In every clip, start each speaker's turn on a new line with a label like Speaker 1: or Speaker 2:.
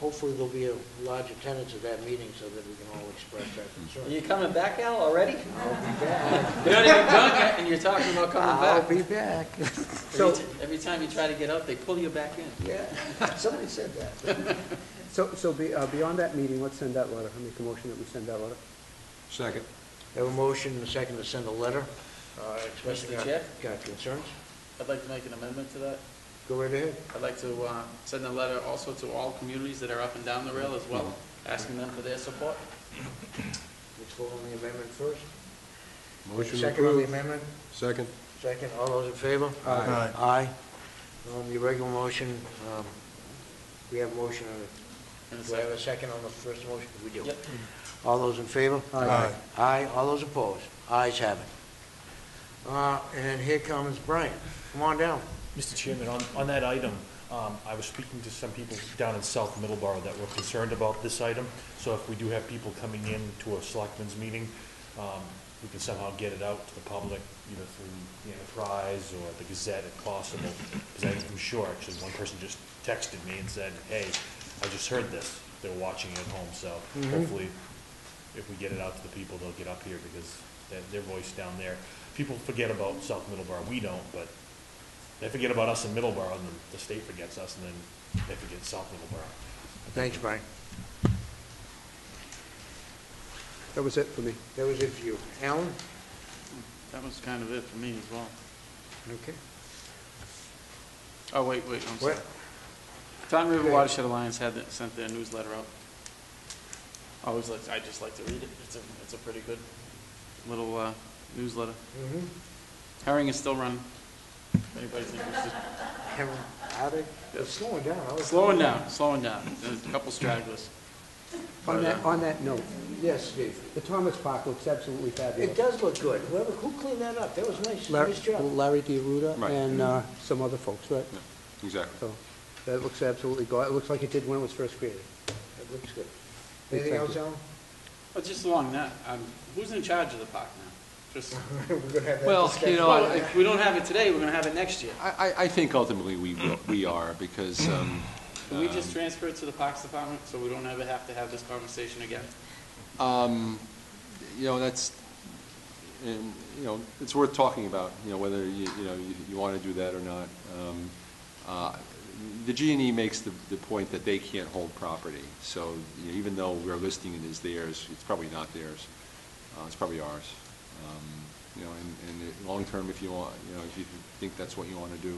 Speaker 1: hopefully there'll be a large attendance at that meeting so that we can all express our
Speaker 2: Are
Speaker 1: concern.
Speaker 2: you coming back, Al, already?
Speaker 1: I'll be back.
Speaker 2: You're not even done yet, and you're talking about coming back.
Speaker 1: I'll be back.
Speaker 2: Every
Speaker 3: So,
Speaker 2: t- Every time you try to get up, they pull you back in.
Speaker 3: yeah, somebody said that. So, so be- uh, beyond that meeting, let's send that letter. I make a motion that we send that letter.
Speaker 4: Second.
Speaker 1: Have a motion and a second to send a letter uh, expressing
Speaker 2: Mr.
Speaker 1: our
Speaker 2: Chair?
Speaker 1: our concerns.
Speaker 2: I'd like to make an amendment to that.
Speaker 1: Go right ahead.
Speaker 2: I'd like to uh, send a letter also to all communities that are up and down the rail as well, asking them for their support.
Speaker 1: Let's vote on the amendment first.
Speaker 4: Motion
Speaker 1: Second on the
Speaker 4: approved.
Speaker 1: amendment?
Speaker 4: Second.
Speaker 1: Second, all those in favor?
Speaker 4: Aye.
Speaker 1: Aye. Um, Your regular motion, um, we have a motion, on
Speaker 2: And
Speaker 1: it.
Speaker 2: it's
Speaker 1: do I have
Speaker 2: like-
Speaker 1: a second on the first motion? We do.
Speaker 2: Yep.
Speaker 1: All those in favor?
Speaker 3: Aye.
Speaker 1: Aye, all those opposed? Ayes have it. Uh, And here comes Brian. Come on down.
Speaker 5: Mr. Chairman, on, on that item, um, I was speaking to some people down in South Middleborough that were concerned about this item. So if we do have people coming in to a selectmen's meeting, um, we can somehow get it out to the public, either through the Enterprise or the Gazette if possible. Because I'm sure, actually, one person just texted me and said, hey, I just heard this. They're watching it at home, so hopefully if we get it out to the people, they'll get up here because their, their voice down there. People forget about South Middleborough. We don't, but they forget about us in Middleborough, and then the state forgets us, and then they forget South Middleborough.
Speaker 1: Thanks, Brian.
Speaker 3: That was it for me.
Speaker 1: That was it for you. Alan?
Speaker 2: That was kind of it for me as well.
Speaker 1: Okay.
Speaker 2: Oh, wait, wait, I'm sorry.
Speaker 1: What?
Speaker 2: Tom River Watershed Alliance had, that- sent their newsletter out. I Always like, I just like to read it. It's a, it's a pretty good little uh, newsletter.
Speaker 1: Mhm.
Speaker 2: Herring is still running. Anybody's interested?
Speaker 1: Have him out of- It's slowing down. I was-
Speaker 2: Slowing down, slowing down. There's a couple stragglers.
Speaker 3: On that, on that note,
Speaker 1: Yes, Steve.
Speaker 3: the Thomas Park looks absolutely
Speaker 1: It
Speaker 3: fabulous.
Speaker 1: does look good. Whoever, who cleaned that up? That was nice.
Speaker 3: Larry
Speaker 1: Nice job.
Speaker 3: Larry DeRuda
Speaker 4: Right.
Speaker 3: and uh, some other folks, right?
Speaker 4: Exactly.
Speaker 3: So, that looks absolutely, go- it looks like it did when it was first created.
Speaker 1: That looks good.
Speaker 3: Thank
Speaker 1: Anything
Speaker 3: you.
Speaker 1: else, Alan?
Speaker 2: But just along that, um, who's in charge of the park now? Just,
Speaker 1: We're gonna have that
Speaker 4: Well,
Speaker 1: discussion.
Speaker 4: you know,
Speaker 2: well,
Speaker 4: I,
Speaker 2: if we don't have it today, we're gonna have it next year.
Speaker 4: I, I think ultimately we, will- we are, because, um,
Speaker 2: Can we just transfer it to the Parks Department so we don't ever have to have this conversation again?
Speaker 4: um, you know, that's, and, you know, it's worth talking about, you know, whether you, you know, you, you wanna do that or not. Um, uh, The G and E makes the, the point that they can't hold property, so you know, even though we're listing it as theirs, it's probably not theirs. Uh, it's probably ours. Um, You know, and, and it- long-term, if you want, you know, if you think that's what you wanna do,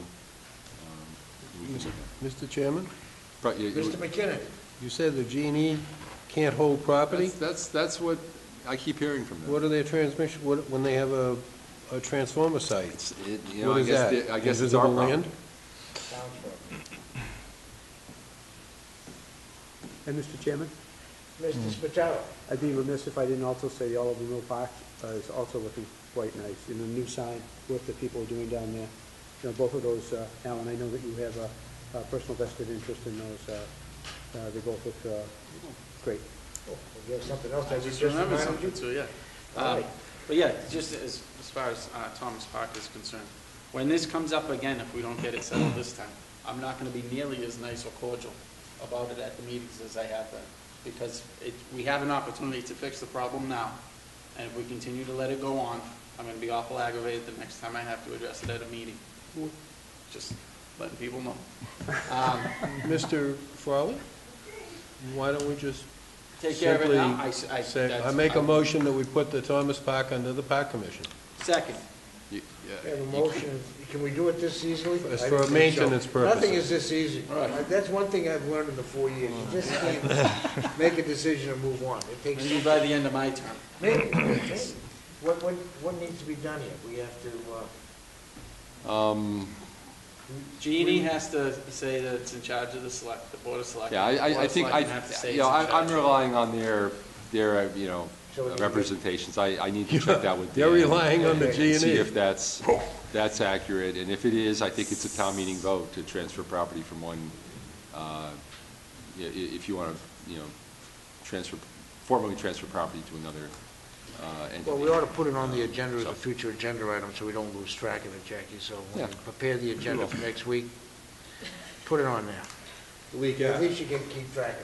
Speaker 4: um, we can do that.
Speaker 6: Mr. Chairman,
Speaker 4: But you-
Speaker 1: Mr. McKinnon?
Speaker 6: you said the G&E can't hold property?
Speaker 4: That's, that's, that's what I keep hearing from them.
Speaker 6: What are their transmission, what, when they have a, a transformer site?
Speaker 4: It's, it, you know,
Speaker 6: What
Speaker 4: I
Speaker 6: is
Speaker 4: guess,
Speaker 6: that?
Speaker 4: the- I guess it's our
Speaker 6: Invisible
Speaker 4: problem.
Speaker 6: land?
Speaker 3: And Mr. Chairman, Mm.
Speaker 1: Mr. Spataro?
Speaker 3: I'd be remiss if I didn't also say the Oliver Mill Park uh, is also looking quite nice, and the new sign, work that people are doing down there. You know, both of those, uh, Alan, I know that you have a a personal vested interest in those, uh, uh, they both look uh, great.
Speaker 1: Oh, You have something else?
Speaker 2: I
Speaker 1: that you
Speaker 2: just remembered
Speaker 1: reminded
Speaker 2: something
Speaker 1: you?
Speaker 2: too, yeah.
Speaker 1: All
Speaker 2: Um,
Speaker 1: right.
Speaker 2: But yeah, just as, as far as uh, Thomas Park is concerned, when this comes up again, if we don't get it settled this time, I'm not gonna be nearly as nice or cordial about it at the meetings as I have been. Because it, we have an opportunity to fix the problem now, and if we continue to let it go on, I'm gonna be awful aggravated the next time I have to address it at a meeting. Just letting people know. Um,
Speaker 6: Mr. Farley, why don't we just
Speaker 2: Take care of it now. I, s- I-
Speaker 6: say, I
Speaker 2: that's-
Speaker 6: make a motion that we put the Thomas Park under the Park Commission?
Speaker 2: Second.
Speaker 4: You-
Speaker 1: We
Speaker 4: yeah,
Speaker 1: have a
Speaker 4: you-
Speaker 1: motion. Can we do it this easily?
Speaker 6: It's
Speaker 1: I
Speaker 6: for
Speaker 1: don't think so.
Speaker 6: maintenance purposes.
Speaker 1: Nothing is this easy.
Speaker 2: Right.
Speaker 1: That's one thing I've learned in the four years. You just can't make a decision and move on. It takes,
Speaker 2: Maybe by the end of my term.
Speaker 1: maybe, maybe. What, what, what needs to be done here? We have to, uh,
Speaker 4: Um,
Speaker 2: Jeannie has to say that it's in charge of the select, the board of select.
Speaker 4: yeah, I, I- I think, I, you know, I- I'm relying on their, their, uh, you know,
Speaker 1: So we need to-
Speaker 4: representations. I, I need to check that with
Speaker 6: They're
Speaker 4: Dan.
Speaker 6: relying on the E.
Speaker 4: and See
Speaker 6: G&E.
Speaker 4: if that's, that's accurate, and if it is, I think it's a town meeting vote to transfer property from one, uh, i- i- if you wanna, you know, transfer, formally transfer property to another, uh, entity.
Speaker 1: Well, we ought to put it on the agenda as a future agenda item, so we don't lose track of it, Jackie, so when we
Speaker 4: Yeah.
Speaker 1: prepare the agenda for next week, put it on there.
Speaker 4: Week
Speaker 1: At least you can keep track of it.